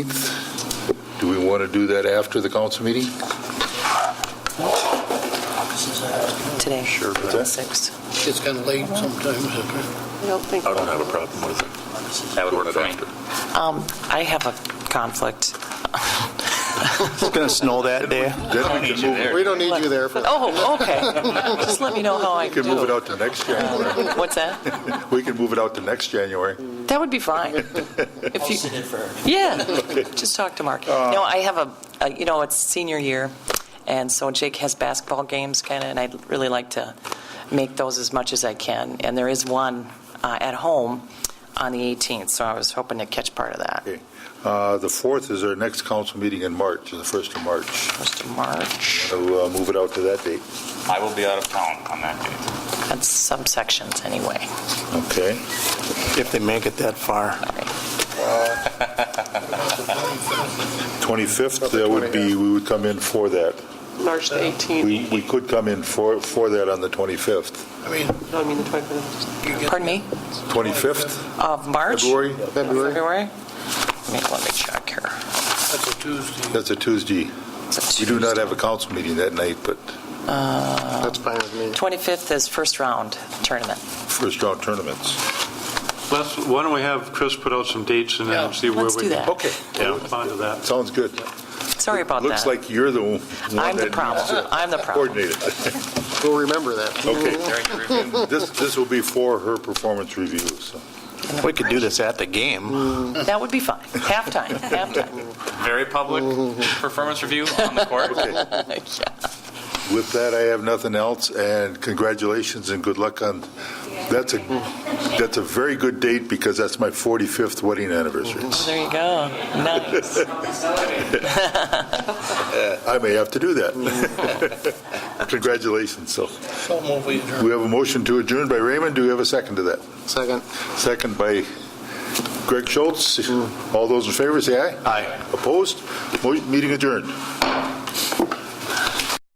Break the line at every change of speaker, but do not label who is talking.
18th. Do we want to do that after the council meeting?
today,
Sure. but
the 6th.
It's kind of late sometimes.
I don't think,
I don't have a problem with it.
That would
Doing
work
it
for me.
after.
Um, I have a conflict.
It's going to snow that day.
I
Then we
don't need
can
you
move it-
there.
We don't need you there for that.
Oh, okay. Just let me know how I
we can move it
do.
out to next January.
What's that?
We can move it out to next January.
That would be fine. If you, Yeah, just talk to Mark.
Uh,
No, I have a- a, you know, it's senior year, and so Jake has basketball games kind of, and I'd really like to make those as much as I can. And there is one uh, at home on the 18th, so I was hoping to catch part of that.
Okay. Uh, The 4th is our next council meeting in March, the 1st of March.
First of March,
So uh, move it out to that date.
I will be out of town on that day.
that's subsections anyway.
Okay.
If they make it that far.
All right.
25th, that would be, we would come in for that.
March the 18th,
We we could come in for for that on the 25th.
I mean,
No, I mean the 25th.
you get-
Pardon me?
25th,
Of March?
February?
February,
February? Let me- let me check here.
that's a Tuesday.
That's a Tuesday.
It's a
We do not have a council meeting that night, but
That's fine with me.
25th Uh, is first round tournament.
first round tournaments.
Let's, why don't we have Chris put out some dates and
Yeah.
then see where we...
Let's do that.
Okay.
Yeah, onto that.
Sounds good.
Sorry about that.
Looks like you're the one that
I'm the
needs
problem.
to
I'm the problem.
coordinate it.
We'll remember that.
Okay. This this will be for her performance review, so.
We could do this at the game.
That would be fine. Halftime, halftime.
Very public
Mm-hmm.
performance review on the court.
Yeah.
With that, I have nothing else, and congratulations and good luck on, that's a, that's a very good date because that's my 45th wedding anniversary.
There you go. Nice.
I may have to do that. Congratulations, so.
So move we adjourn.
We have a motion to adjourn by Raymond, do we have a second to that?
Second.
Second by Greg Schultz. All those in favor, say aye.
Aye.
Opposed? Mo- Meeting adjourned.